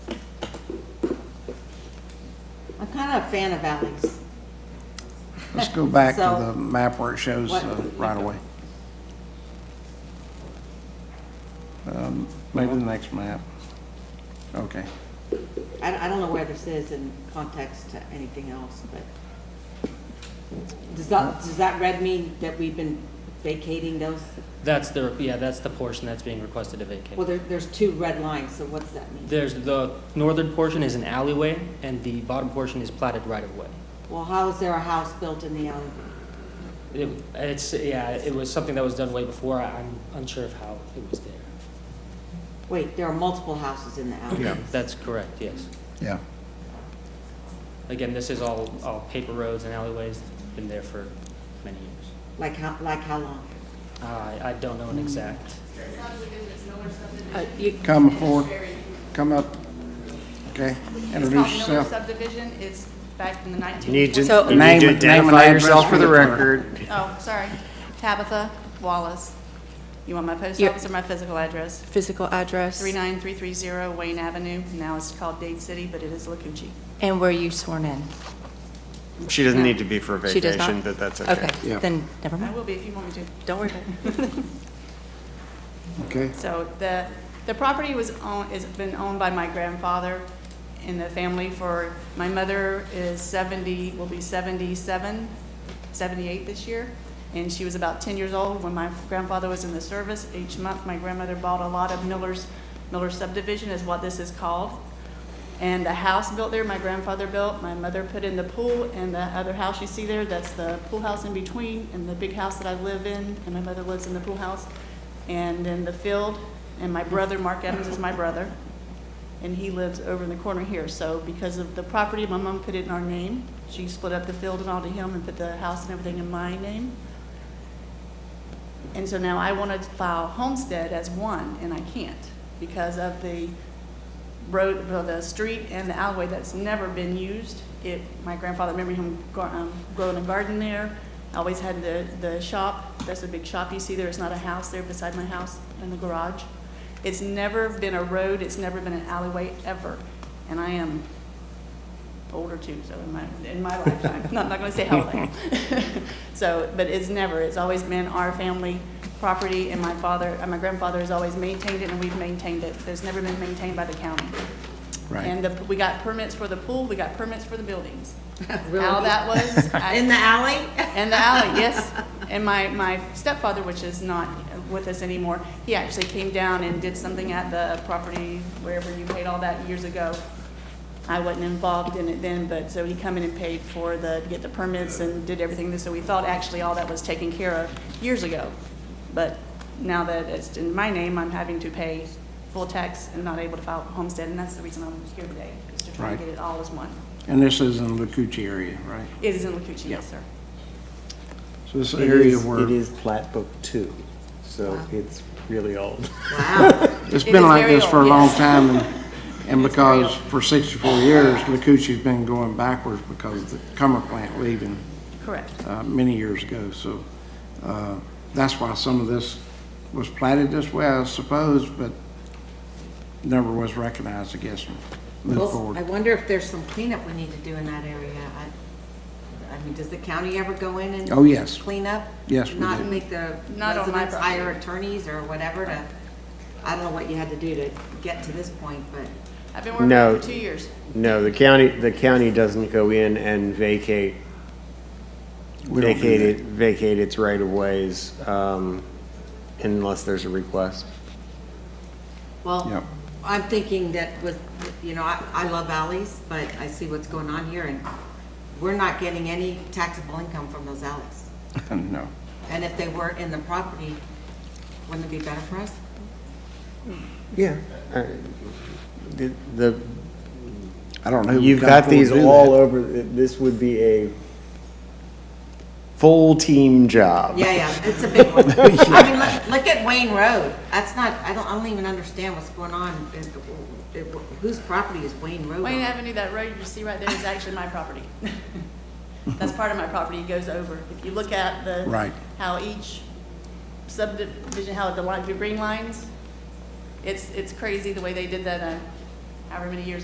I'm kind of a fan of alleys. Let's go back So- to the map where it shows What- uh, right away. Um, Maybe the next map. Okay. I, I don't know where this is in context to anything else, but does that, does that red mean that we've been vacating those? That's the, yeah, that's the portion that's being requested to Well, vacate. there, there's two red lines, so what's that mean? There's, the northern portion is an alleyway, and the bottom portion is platted right-of-way. Well, how is there a house built in the alley? It- It's, yeah, it was something that was done way before, I- I'm unsure of how it was there. Wait, there are multiple houses in the alley. That's correct, yes. Yeah. Again, this is all, all paper roads and alleyways, been there for many years. Like how, like how long? I, I don't know an exact, Uh, you- Come forward, come up. Okay, It's called introduce Miller yourself. subdivision, it's back in the You need 1920s. to, So- you need Name- to name and identify address yourself for for the the clerk. record. Oh, sorry, Tabitha Wallace. You want my post Yeah. office or my physical address? physical address 39330 Wayne Avenue, now it's called Dade City, but it is Luckingee. and were you sworn in? She doesn't need to be for She does not? vacation, but that's okay. Yeah. then never I mind. will be if you want me to. Don't worry about it. Okay, So the, the property was owned, has been owned by my grandfather in the family for, my mother is 70, will be 77, 78 this year, and she was about 10 years old when my grandfather was in the service. Each month, my grandmother bought a lot of Miller's, Miller subdivision is what this is called. And the house built there, my grandfather built, my mother put in the pool, and the other house you see there, that's the pool house in between, and the big house that I live in, and my mother lives in the pool house. And then the field, and my brother, Mark Evans is my brother, and he lives over in the corner here. So because of the property, my mom put it in our name. She split up the field and all to him and put the house and everything in my name. And so now I want to file homestead as one, and I can't because of the road, well, the street and the alleyway that's never been used. It, my grandfather, remember him gro- um, growing a garden there, always had the, the shop, that's a big shop you see there, it's not a house there beside my house in the garage. It's never been a road, it's never been an alleyway ever, and I am older too, so in my, in my lifetime, No, I'm not gonna say how old I am. So, but it's never, it's always been our family property, and my father, and my grandfather has always maintained it, and we've maintained it. It's never been maintained by the county. Right. And the, we got permits for the pool, we got permits for the buildings. How that was. I- In the alley? in the alley, yes. And my, my stepfather, which is not with us anymore, he actually came down and did something at the property wherever you paid all that years ago. I wasn't involved in it then, but, so he come in and paid for the, to get the permits and did everything, so we thought actually all that was taken care of years ago. But now that it's in my name, I'm having to pay full tax and not able to file homestead, and that's the reason I'm here today, is to try and Right. get it all as one. and this is in the Lucucci area, right? It is in Lakuchi, yes, sir. So this It area is- It where, is plat book two, so it's really old. it's it been is like very this for a old, long yes. time, and, and because for sixty-four years, Lucucci's been going backwards because of the Cummer plant leaving Correct. uh, many years ago, so uh, that's why some of this was platted this way, I suppose, but never was recognized, I guess, and moved Well, I forward. wonder if there's some cleanup we need to do in that area. I, I mean, does the county ever go in and? Oh, yes. Clean up? Yes, we Not do. make the Not on my residents property. hire attorneys or whatever to, I don't know what you had to do to get to this point, but I've been working No. for two years. No, the county, the county doesn't go in and vacate, We don't do vacate that. it, vacate its right of ways, um, unless there's a request. Yep. Well, I'm thinking that with, you know, I, I love alleys, but I see what's going on here, and we're not getting any taxable income from those alleys. No. And if they were in the property, wouldn't it be better for us? Yeah. uh, The, the, I don't know who would You've come got forward these to do all that. over, this would be a full team job. Yeah, yeah, it's a big one. I mean, look, look at Wayne Road. That's not, I don't, I don't even understand what's going on. It- it- Whose property is Wayne Road Wayne on? Avenue, that road you see right there is actually my property. That's part of my property, it goes over. If you look at the. Right. How each subdivision, how the line, the green lines, it's, it's crazy the way they did that, uh, however many years